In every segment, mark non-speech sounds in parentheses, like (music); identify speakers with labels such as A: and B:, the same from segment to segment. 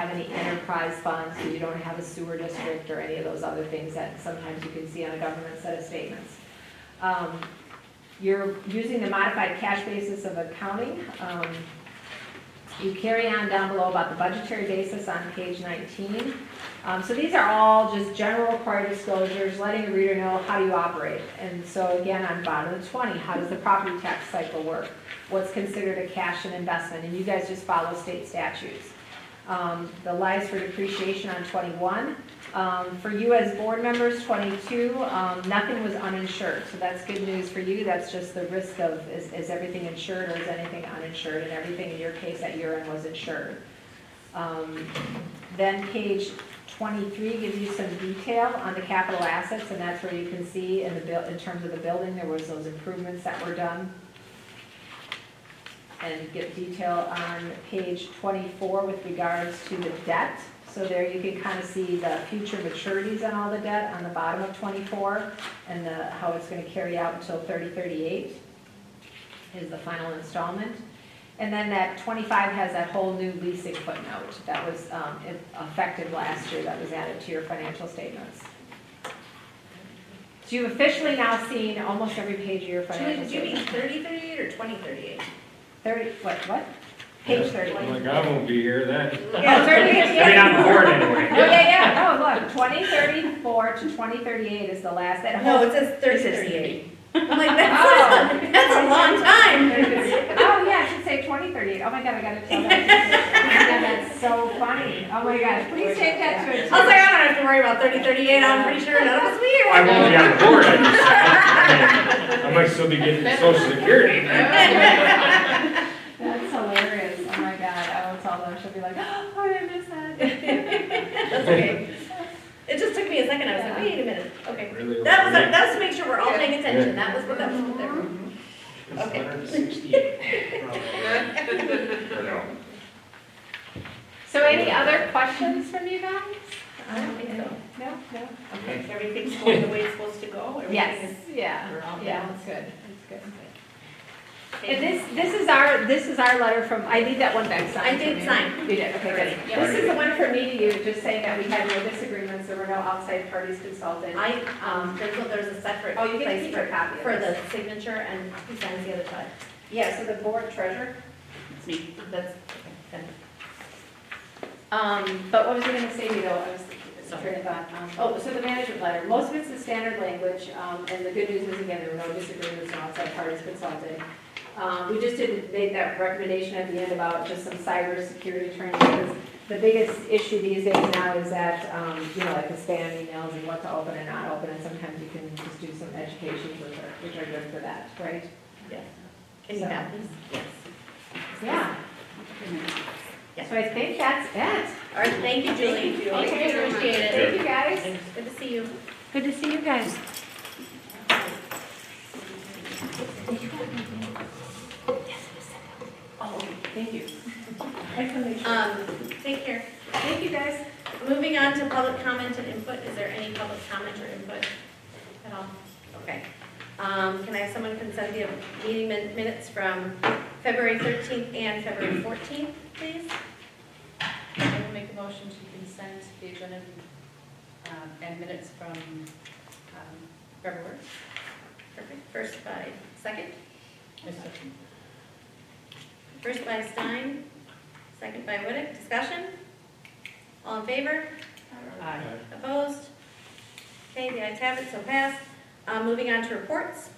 A: any enterprise funds, so you don't have a sewer district or any of those other things that sometimes you can see on a government set of statements. Um, You're using the modified cash basis of accounting. Um, You carry on down below about the budgetary basis on page 19. Um, So these are all just general required disclosures, letting the reader know how you operate. And so again, on bottom of 20, how does the property tax cycle work? What's considered a cash and investment? And you guys just follow state statutes. Um, The lives for depreciation on 21. Um, For you as board members, 22, um, nothing was uninsured. So that's good news for you. That's just the risk of, is is everything insured or is anything uninsured? And everything in your case at year end was insured. Um, Then page 23 gives you some detail on the capital assets, and that's where you can see in the, buil- in terms of the building, there was those improvements that were done. And get detail on page 24 with regards to the debt. So there you can kind of see the future maturities on all the debt on the bottom of 24, and the, how it's going to carry out until 3038 is the final installment. And then that 25 has that whole new leasing footnote that was um, effective last year, that was added to your financial statements. So you've officially now seen almost every page of your
B: Julie,
A: financial
B: did you mean
A: statement.
B: thirty thirty-eight or twenty thirty-eight?
A: 30, what, what? Page 30.
C: Like, I won't be here then.
A: Yeah, 30,
D: I mean,
A: yeah.
D: I'm bored anyway.
A: Oh, yeah, yeah, no, look, 2034 to 2038 is the last, that whole.
B: No, it says thirty (laughs) thirty-eight. I'm like, that's,
A: (laughs) Oh.
B: that's a long time.
A: Oh, yeah, I should say 2038, oh my god, I gotta
B: (laughs)
A: tell that. Yeah, that's so funny, oh my gosh, please take that to a.
B: I was like, I don't have to worry about thirty thirty-eight, I'm pretty sure none of us we
D: I won't
B: (laughs)
D: be on the board. I just said. I mean, I might still be getting social security.
B: (laughs)
A: That's hilarious, oh my god, I will tell them, she'll be like, (gasps) oh, did I missed that.
B: That's okay. It just took me a second, I was like,
A: Yeah.
B: wait a minute, okay.
D: Really?
B: That was,
D: really?
B: that was to make sure we're all paying attention,
D: Yeah.
B: that was what that was there.
E: It's
B: Okay.
E: 168.
D: Or no?
A: So any other questions from you guys?
B: I don't think so.
A: No, no? Okay.
B: Everything's going the way it's supposed to go, everything
A: Yes,
B: is.
A: yeah,
B: We're all
A: yeah, that's
B: balanced.
A: good, that's good. And this, this is our, this is our letter from, I need that one back signed.
B: I did
A: from you.
B: sign.
A: You did, okay, good.
B: Alright,
A: This is the one for me to you, just saying that we had no disagreements, there were no outside parties consulted.
B: I, um, there's, a- there's a separate
A: Oh, you can
B: place
A: keep
B: for-
A: a copy of
B: For the
A: this.
B: signature and who signs the other side?
A: Yeah, so the board treasurer.
B: It's me. That's, okay.
A: Um, but what was I gonna say to you though? I was
B: Sorry.
A: thinking about, um, oh, so the management letter, most of it's the standard language, um, and the good news is again, there were no disagreements, no outside parties consulted. Um, we just didn't make that recommendation at the end about just some cybersecurity training, because the biggest issue these days now is that, um, you know, like the spam emails and what to open and not open, and sometimes you can just do some education, which are, which are good for that, right?
B: Yes. Can you
A: So-
B: have these? Yes.
A: Yeah.
B: Yeah.
A: So I think that's it.
B: All right, thank you, Julie.
A: you. Thank you very much.
B: Appreciate it.
A: Thank you, guys.
B: Good to see you.
F: Good to see you guys.
A: Thank you.
B: Oh, Um, take care.
A: Thank you, guys.
B: Moving on to public comment and input, is there any public comment or input at all? Okay. Um, can I have someone consent the meeting min- minutes from February thirteenth and February fourteenth, please?
G: (laughs) I will make a motion to consent the agenda um, and minutes from um, February.
B: Perfect, first by, second? First by Stein, second by Whittick, discussion? All in favor?
G: Aye.
B: Opposed? Okay, the ayes have it, so passed. Uh, moving on to reports.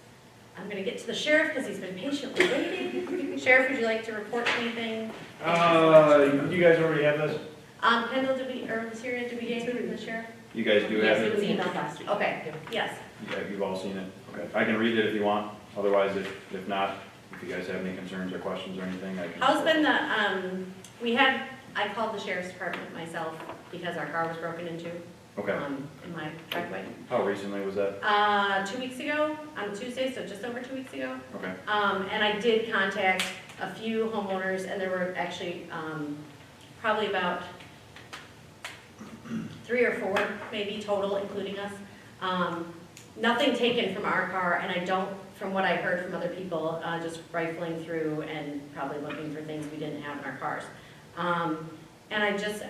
B: I'm gonna get to the sheriff because he's been patiently (laughs) waiting. Sheriff, would you like to report anything?
E: Uh, you guys already have this?
B: Um, Kendall, did we, or was here, did we get from the sheriff?
H: You guys do have
B: Yes,
H: it?
B: it was emailed last week. Okay, yes.
H: Yeah, You've all seen it? Okay. I can read it if you want, otherwise if, if not, if you guys have any concerns or questions or anything, I can.
B: How's been the, um, we had, I called the sheriff's department myself because our car was broken into,
H: Okay,
B: um, in my driveway.
H: how recently was that?
B: Uh, two weeks ago, on Tuesday, so just over two weeks ago.
H: Okay,
B: Um, and I did contact a few homeowners, and there were actually, um, probably about three or four, maybe total, including us. Um, nothing taken from our car, and I don't, from what I heard from other people, uh, just rifling through and probably looking for things we didn't have in our cars. Um, and I just,